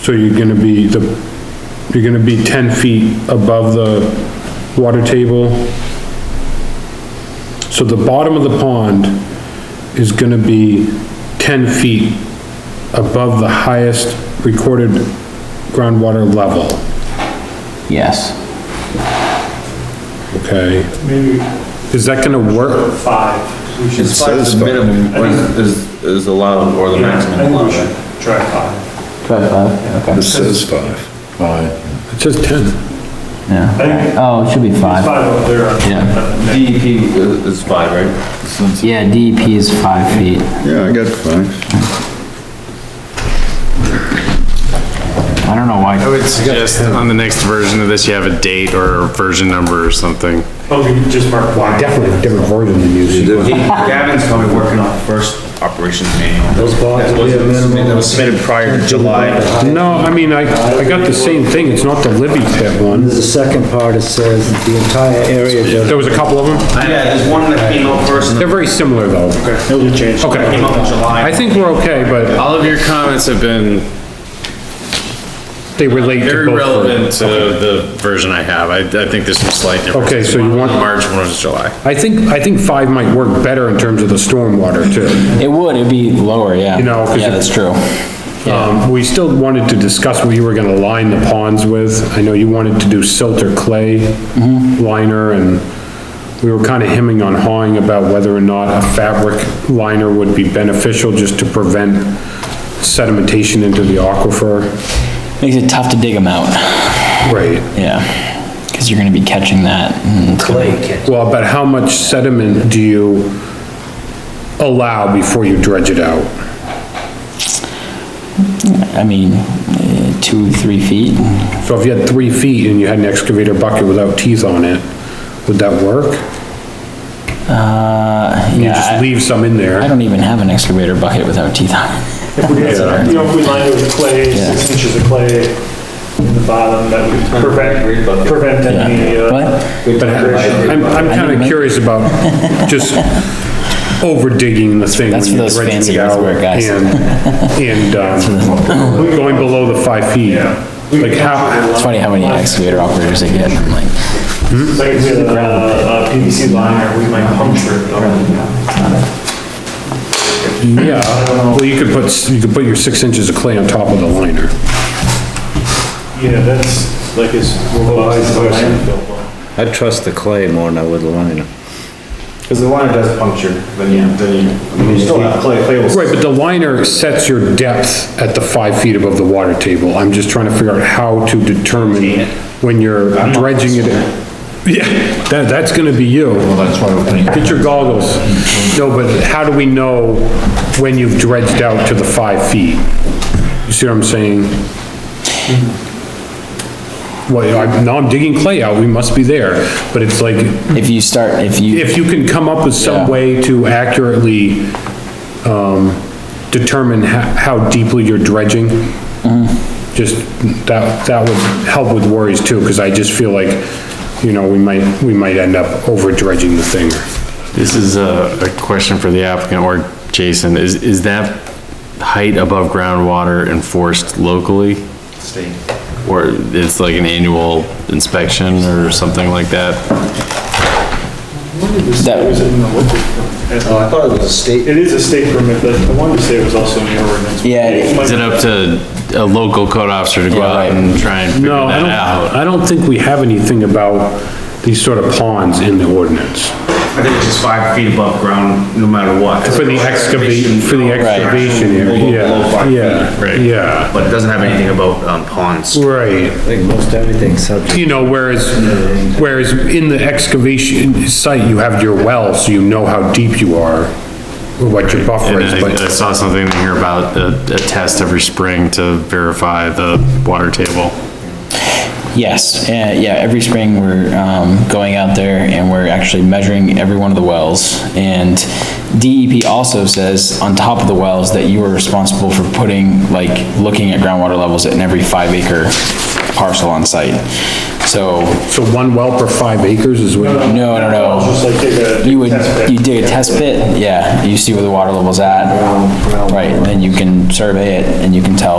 So you're gonna be the, you're gonna be ten feet above the water table. So the bottom of the pond is gonna be ten feet above the highest recorded groundwater level, Yes. okay? maybe Is that gonna work? five. We should It says five. minimum I think- is, is allowed or the Yeah, I maximum think we allowed. should try five. Try five, okay, It says five. It says ten. I yeah. think it's Oh, it should be five. five up there. on- Yeah. DEP E is is five, right? Yeah, DEP is five feet. Yeah, I got five. I don't know why. I would suggest on the next version of this, you have a date or a version number or something. But Oh, we can just mark one. Definitely a different version than you see. Gavin's probably working on the first operations manual. Those bonds will be a minimum. That was submitted prior to July. No, I mean, I, I got the same thing, it's not the Libby pit one. There's a second part, it says the entire area There was a couple of them. Yeah, there's one that came out first, They're very similar though. Okay. came out in Okay. I July. think we're okay, but All of your comments have been they relate to very both. of them. relevant to the version I have. I, I think there's some slight differences. Okay, so you want- March, one was July. I think, I think five might work better in terms of the stormwater too. It would, it'd be lower, yeah. You know, 'cause Yeah, it- that's true. Um, we still wanted to discuss what you were gonna line the ponds with. I know you wanted to do silt or clay Mm-hmm. liner and we were kinda hemming on hawing about whether or not a fabric liner would be beneficial just to prevent sedimentation into the aquifer. Makes it tough to dig them out, Right. yeah. Cause you're gonna be catching that. Mm, and- Well, but how much sediment do you allow before you dredge it out? I mean, eh, two, three feet, So if you had three feet and you had an excavator bucket without teeth on it, would that work? uh, You yeah. just I- leave some in there? I don't even have an excavator bucket without teeth on it. If we had, some- you know, if we lined it with clay, six inches of clay in the bottom, that would prevent, prevent any, Yeah. uh, But But I'm, I'm kinda curious about just over digging the thing. That's when for you're those dredging fancy it out earthwork guys. And, and, um, going below the five feet. Yeah. Like how, it's funny how many excavator operators they get, I'm like, like if we had a, uh, PVC liner, we might puncture it. yeah, well, you could put, s- you could put your six inches of clay on top of the liner. Yeah, that's like as robust as a landfill. one. I trust the clay more than I would the liner. Because the liner does puncture, then you, then you, I mean, you still have clay, clay will. Right, but the liner sets your depth at the five feet above the water table. I'm just trying to figure out how to determine when you're dredging it. in. Yeah, that, that's gonna be you. Get your goggles. No, but how do we know when you've dredged out to the five feet? You see what I'm saying? Well, I'm, now I'm digging clay out, we must be there, but it's like, if you start, if you. if you can come up with Yeah. some way to accurately, um, determine how, how deeply you're dredging, just, that, that would help with worries too, because I just feel like, you know, we might, we might end up over dredging the thing. This is a, a question for the applicant or Jason. Is, is that height above groundwater enforced locally? State. Or it's like an annual inspection or something like that? That- It was in the local- I thought it was a state. It is a state permit, but I wanted to say it was also in the ordinance. Yeah, it is. Is it up to a local code officer to go out and try and figure No, I that don't, out? I don't think we have anything about these sort of ponds in the ordinance. I think it's just five feet above ground, no matter what. For the excavation, for the excavation area, Below yeah, five feet, yeah, right. yeah, But it doesn't have anything about um, ponds. right. I think most everything's subject. You know, whereas, whereas in the excavation site, you have your well, so you know how deep you are, or what your buffer And is, I I but, saw something in here about a, a test every spring to verify the water table. Yes, uh, yeah, every spring we're um, going out there and we're actually measuring every one of the wells. And DEP also says on top of the wells that you are responsible for putting, like, looking at groundwater levels in every five acre parcel on site. So, so one well per five acres is what, no, no, It's Just no. like take a. You would, test pit. you dig a test pit, yeah, you see where the water level's at. Right, and then you can survey it and you can tell